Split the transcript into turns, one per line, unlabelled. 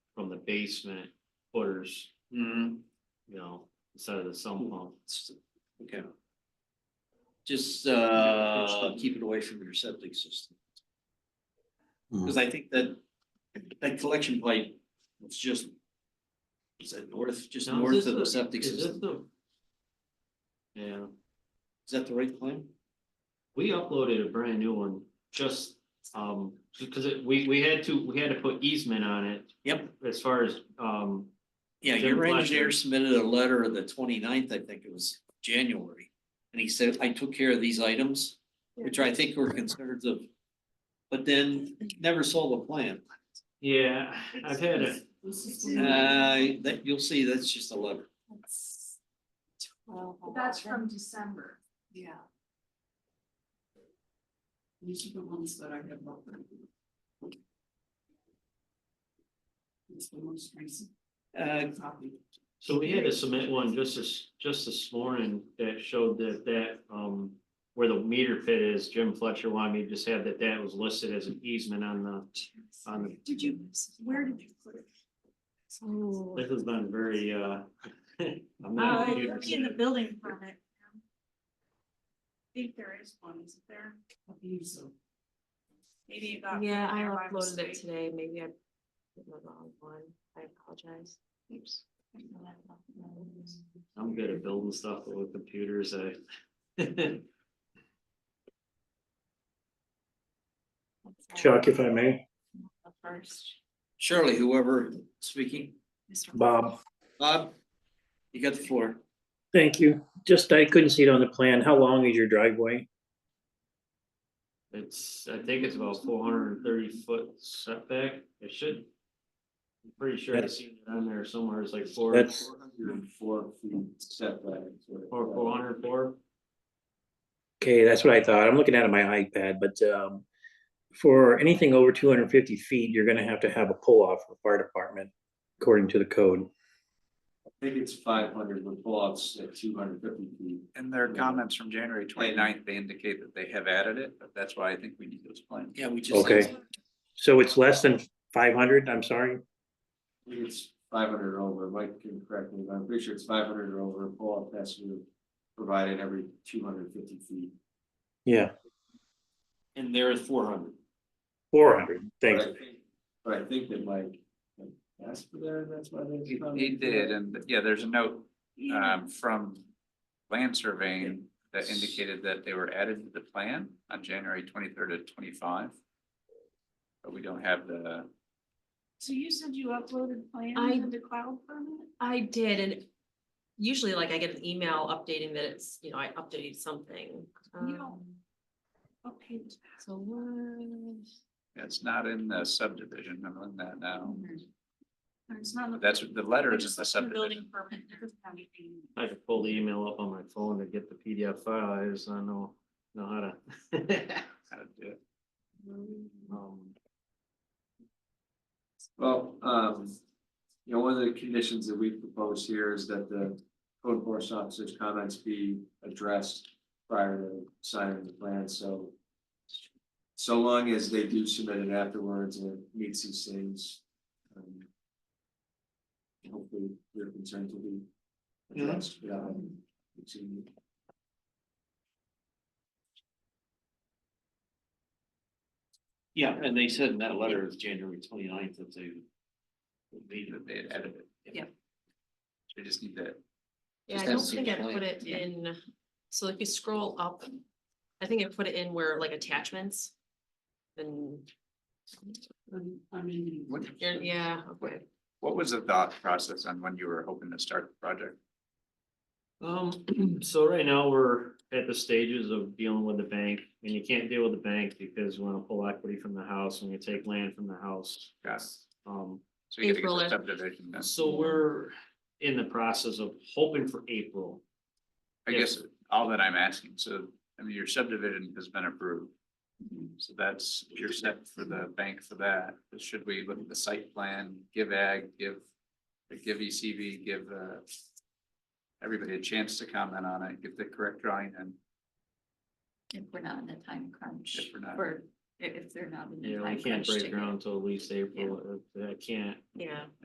the basement footers,
Hmm,
you know, instead of the sump pump.
okay. Just, uh, keep it away from your septic system. Cause I think that, that collection pipe, it's just. Is that north, just
Now, is
north
this
of the
the-
septic
is this
system?
the- Yeah,
Is that the right plan?
we uploaded a brand new one, just, um, because it, we, we had to, we had to put easement on it
Yep.
as far as, um,
Yeah,
Jim
your engineer
Fletcher.
submitted a letter of the 29th, I think it was January. And he said, I took care of these items, which I think were concerns of. But then never saw the plan.
yeah, I've had a,
Uh, that, you'll see, that's just a letter.
That's from December. Yeah.
These are the ones that I have open. It's the most recent
Uh,
copy.
So we had to submit one just this, just this morning that showed that that, um, where the meter pit is, Jim Fletcher wanted me to just have that that was listed as an easement on the, on the,
Did you, where did you put it? Oh.
this has been very, uh, I'm
Uh,
not. a computer
it'll be in the
guy.
building permit. I think there is one, is there?
Copies of-
Maybe it got.
Yeah, I
there by
uploaded it
mistake.
today, maybe I did the wrong one, I apologize. Oops.
I'm good at building stuff with computers, I.
Chuck, if I may,
First,
Shirley, whoever speaking,
Mr.
Bob,
Bob, you got the floor.
thank you. Just, I couldn't see it on the plan. How long is your driveway?
It's, I think it's about four hundred and thirty foot setback, it should. I'm Pretty sure I've seen it on there somewhere, it's like four,
That's-
four, four hundred, four.
Okay, that's what I thought. I'm looking at it on my iPad, but um, for anything over two hundred and fifty feet, you're gonna have to have a pull-off for fire department, according to the code.
think it's five hundred with blocks at two hundred fifty feet.
And their comments from January 29th, they indicate that they have added it, but that's why I think we need those plans.
Yeah, we just.
Okay, so it's less than five hundred, I'm sorry.
I think It's five hundred or over, Mike can correct me, but I'm pretty sure it's five hundred or over, pull-up has to be provided every two hundred fifty feet.
Yeah,
And there is four hundred.
four hundred, thanks.
But I think- But I think that Mike asked for that, that's why they.
He he did, and yeah, there's a note um from land surveying that indicated that they were added to the plan on January twenty-third of twenty-five. But we don't have the,
So you said you uploaded
I-
plans into cloud permit?
I did, and usually like I get an email updating that it's, you know, I updated something.
You don't-
Um,
Okay.
So what?
it's not in the subdivision, I'm on that now.
It's not.
That's, the letter is in
It's
the
in the Building
subdivision.
permit. It doesn't have anything.
I could pull the email up on my phone to get the PDF file, I just don't know, know how to.
how to do it.
Um,
Well, um, you know, one of the conditions that we propose here is that the code enforcement officer's comments be addressed prior to signing the plan, so. So long as they do submit it afterwards and it meets these things. um, Hopefully their concerns will be addressed without. exceeding.
Yeah, and they said in that letter of January 29th that they.
Leave that they had added it.
Yeah.
We just need that.
Yeah, I
Just
don't
has to
think I
explain.
put it in, so if you scroll up, I think I put it in where like attachments. And,
Um, I mean.
What-
you're- yeah, okay.
What was the thought process on when you were hoping to start the project?
Um, so right now, we're at the stages of dealing with the bank, and you can't deal with the bank because you wanna pull equity from the house, and you take land from the house.
Got it.
Um,
So you gotta
April
get the
is-
subdivision done.
so we're in the process of hoping for April.
I guess all that I'm asking, so, I mean, your subdivision has been approved. So that's, your step for the bank for that. Should we look at the site plan, give ag, give, give ECB, give, uh, everybody a chance to comment on it, get the correct drawing and
If we're not in a time crunch,
if we're not.
or i- if they're not in
You
a
Mm,
know, we
time crunch.
can't
to
break
get-
ground until at least April, Uh, I I can't.
Yeah.